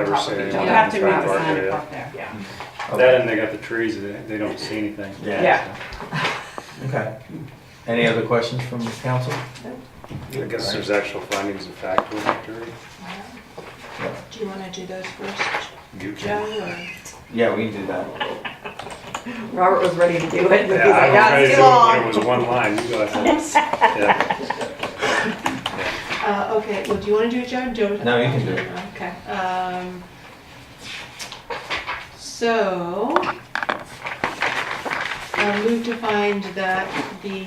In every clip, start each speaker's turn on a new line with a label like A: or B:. A: Ever say
B: You
C: You
A: anything
C: have to
A: about
C: read the
A: that,
C: sign
A: yeah.
C: up there.
B: Yeah.
A: That and they got the trees, they, they don't see anything.
D: Yeah.
B: Yeah.
D: Okay. Any other questions from the council?
A: I guess there's actual findings of fact with the jury.
E: Do you want to do those first,
A: You
E: Joe, or?
D: Yeah, we can do that.
B: Robert was ready to do it, but he's
A: Yeah,
B: like,
A: I
B: "Ah,
A: was
B: it's too
A: ready to do it when it was one
B: long.
A: line, you go ahead. Yeah.
E: Uh, okay, well, do you want to do it, Joe? Do
D: No, you can do it.
E: Okay. Um, so, I moved to find that the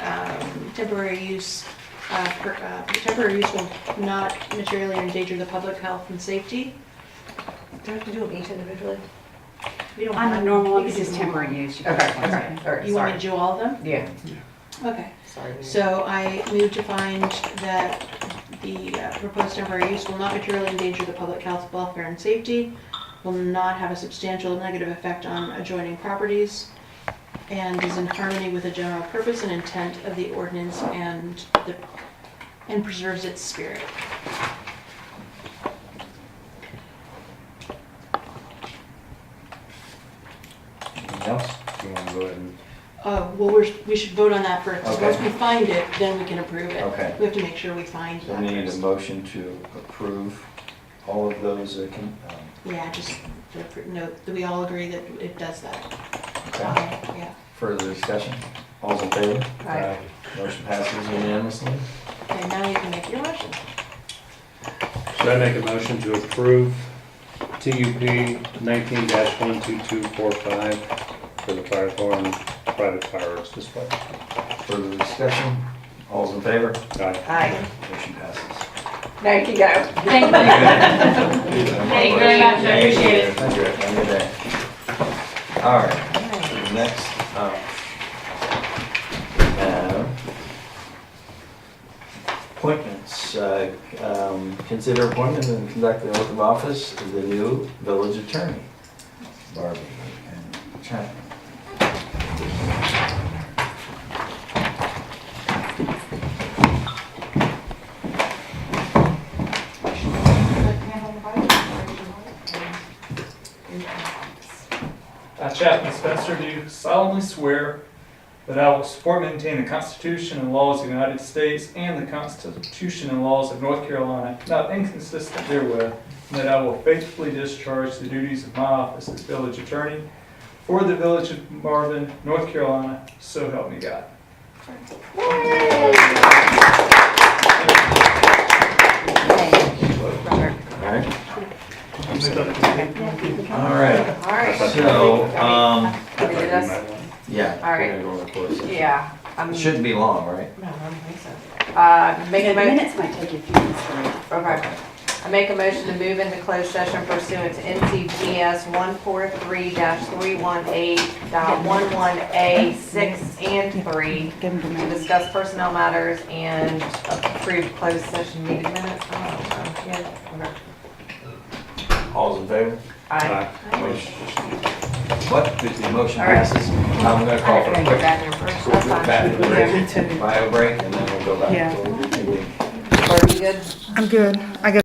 E: um, temporary use, uh, per- uh, temporary use will not materially endanger the public health and safety.
F: Do I have to do them each individually?
E: We don't
C: On
E: have-
C: the normal,
E: you
C: this
E: can
C: is
E: do-
C: temporary use. You
F: Okay,
C: can-
F: okay, all right,
E: You want to do
F: sorry.
E: all of them?
F: Yeah,
E: Okay.
F: sorry. we-
E: So I move to find that the uh, proposed temporary use will not materially endanger the public health, welfare, and safety, will not have a substantial negative effect on adjoining properties, and is in harmony with the general purpose and intent of the ordinance and the, and preserves its spirit.
D: Anything else?
A: You wanna go ahead and,
E: Uh, well, we're, we should vote on that first. 'cause
D: Okay.
E: Once we find it, then we can approve it.
D: Okay.
E: We have to make sure we find
D: So
E: that
D: we need a
E: first.
D: motion to approve all of those. uh, con- um,
E: Yeah, just, to appro- note that we all agree that it does that.
D: Okay.
E: Yeah.
D: Further discussion? All's in favor?
F: Right.
D: Motion passes unanimously.
E: Okay, now you can make your motion.
A: Uh, should I make a motion to approve TUP nineteen one two two four five for the fire alarm private fireworks display?
D: Further discussion? All's in favor?
A: Aye.
F: Aye.
D: Motion passes.
B: Now you can go.
C: Thank you.
D: Thank
C: you very much. I appreciate it.
D: Thank you. Have a good day. All right, next up. we have Appointments, Uh, um, consider appointment and conduct the oath of office of the new village attorney, Barbie and Chapman.
G: I, Chapman Spencer, do solemnly swear that I will support and maintain the Constitution and laws of the United States and the Constitution and laws of North Carolina, not inconsistent therewith, and that I will faithfully discharge the duties of my office as village attorney for the village of Marvin, North Carolina, so help me God.
D: All right. All right,
B: All right.
D: so, um,
A: I
B: Can
A: thought
B: we
A: you
B: do this?
A: might want-
D: yeah.
B: All right.
D: we're gonna go on the closed session.
B: Yeah, I'm,
D: It shouldn't be long, right?
F: No, I don't think so.
B: uh, make
C: The
B: a mo,
C: minutes might take a few minutes to read.
B: okay. I make a motion to move into closed session pursuant to NCGS one four three three one eight one one A six and three
C: Give them the
B: to
C: minutes.
B: discuss personnel matters and approve closed session meeting minutes. Oh, okay. Yeah,
D: All's in favor?
B: okay. Aye.
A: Aye.
D: Motion- What? The the motion
B: All right.
D: passes. I'm gonna call for a quick bathroom break, bio break, and then we'll go back.
C: Yeah.
D: to-
B: Are we good?